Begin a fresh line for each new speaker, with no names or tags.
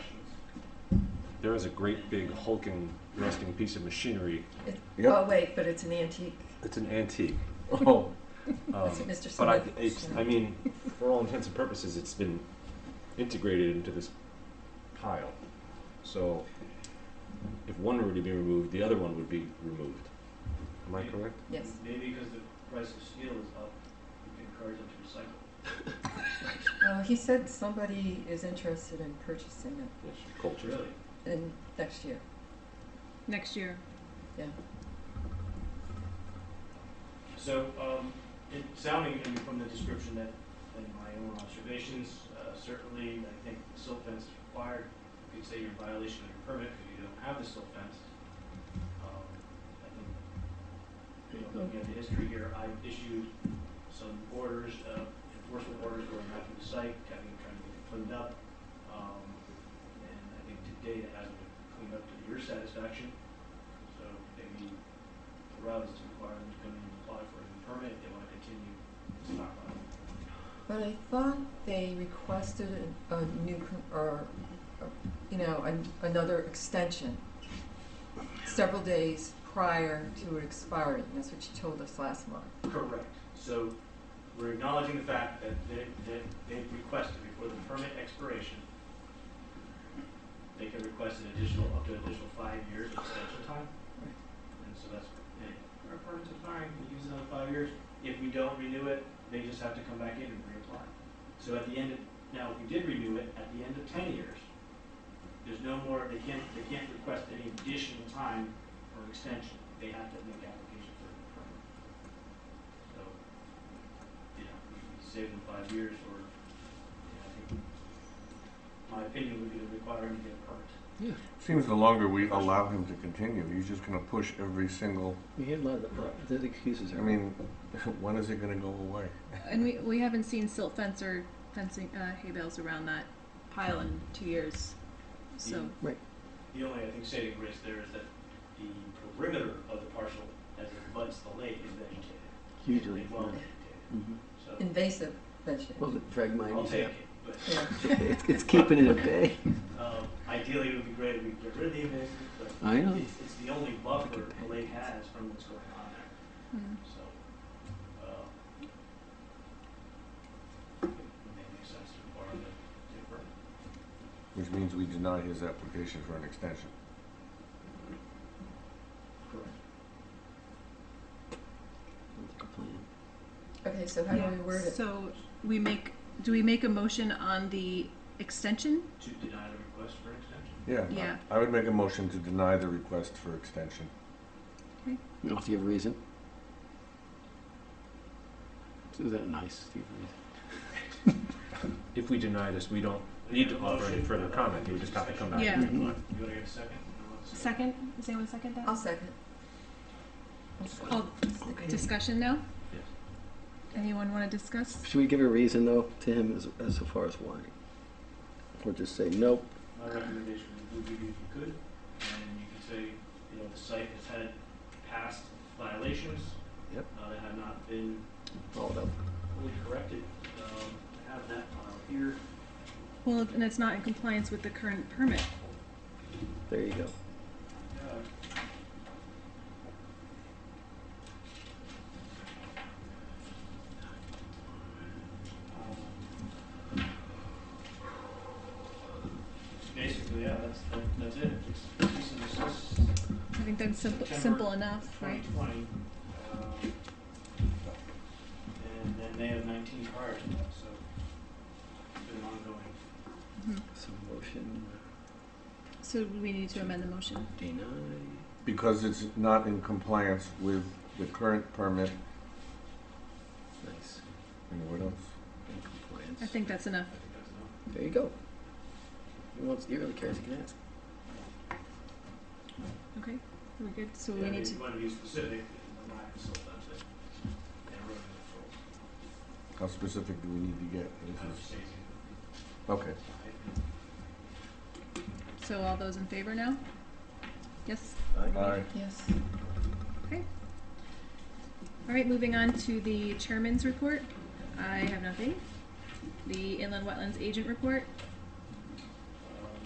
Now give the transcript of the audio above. there is a great big hulking rusting piece of machinery.
It-
Yep.
Oh, wait, but it's an antique.
It's an antique.
Oh,
Um,
it, Mr.
But I,
Smith?
it's, I mean, for all intents and purposes, it's been integrated into this pile. So if one were to be removed, the other one would be removed. Am I correct?
Yes.
Maybe because the price of steel is up, you can encourage them to recycle.
Uh, he said somebody is interested in purchasing
Yes, culture.
Really?
it in next year.
next year.
So, um, it sounding, I mean, from the description that, and my own observations, uh, certainly, I think the silt fence is required. You could say you're in violation of your permit because you don't have the silt fence. Um, I think, you know, looking at the history here, I issued some orders, uh, enforcement orders going out to the site, having, trying to get it cleaned up. Um, and I think today it hasn't been cleaned up to your satisfaction. So maybe the route is to require them to come in and apply for a new permit if they want to continue stockpiling.
But I thought they requested a, a new, con- or, or, you know, an, another extension several days prior to it expiring. That's what you told us last month.
Correct. So we're acknowledging the fact that they, that they've requested before the permit expiration, they can request an additional, up to an additional five years of extension time. And so that's, and our permit's expiring, we use another five years. If we don't renew it, they just have to come back in and reapply. So at the end of, now, if we did renew it, at the end of ten years, there's no more, they can't, they can't request any additional time or extension. They have to make application for a permit. So, you know, we save them five years or, you know, I think, my opinion would be to require him to get a permit.
seems the longer we allow him to continue, he's just gonna push every single,
We hear a lot of the, the excuses.
I
are-
mean, when is it gonna go away?
And we, we haven't seen silt fence or fencing, uh, hay bales around that pile in two years. So,
The only, I think, saving risk there is that the perimeter of the parcel as it butts the lake is vegetated.
Hugely.
Well
yeah.
vegetated,
Mhm.
so
Invasive vegetation.
Well, the fragmite.
I'll
is-
take it, but,
Yeah.
It's, mm-hmm. it's keeping it at bay.
um, ideally it would be great if we could get rid of the invasive, but
I know.
it's, it's the only buffer the lake has from what's going on there.
mm.
So, uh, it may make sense to require the different.
Which means we deny his application for an extension.
Correct.
Sounds like a plan.
Okay, so how do we word it?
So we make, do we make a motion on the extension?
To deny the request for extension?
Yeah.
Yeah.
I would make a motion to deny the request for extension.
You don't have to give a reason. Is that nice? to give a reason?
If we deny this, we don't need to offer any further comment. We just have to come back Mm-hmm. and
Yeah.
reapply.
You wanna get a second? No one's-
Second, does anyone second that?
I'll second. I'll second.
Oh, discussion now?
Yes.
Anyone wanna discuss?
Should we give a reason though to him as, as far as why? Or just say nope?
My recommendation would be if you could, and you could say, you know, the site has had past violations.
Yep.
Uh, that have not been
All up.
fully corrected. Um, I have that file here.
Well, and it's not in compliance with the current permit.
There you go.
Uh, Basically, yeah, that's, that- that's it. It's cease and desist,
I think that's simple,
September
simple enough, right?
2020. um, And then they have 19 prior to that, so it's been ongoing.
Mhm.
So motion
So we need to amend the motion.
deny.
Because it's not in compliance with the current permit
Nice.
and what else?
In compliance.
I think that's enough.
I think that's enough.
There you go. He wants. He really cares. He can ask.
Okay, we're good. So
Yeah,
we need
if
to.
you want to be specific, then the lack of self-benefit and erosion control.
How specific do we need to get?
I would
This is-
say
Okay.
it's-
So all those in favor now? Yes?
Aye.
Yes.
All right, moving on to the chairman's report. I have nothing. The inland wetlands agent report.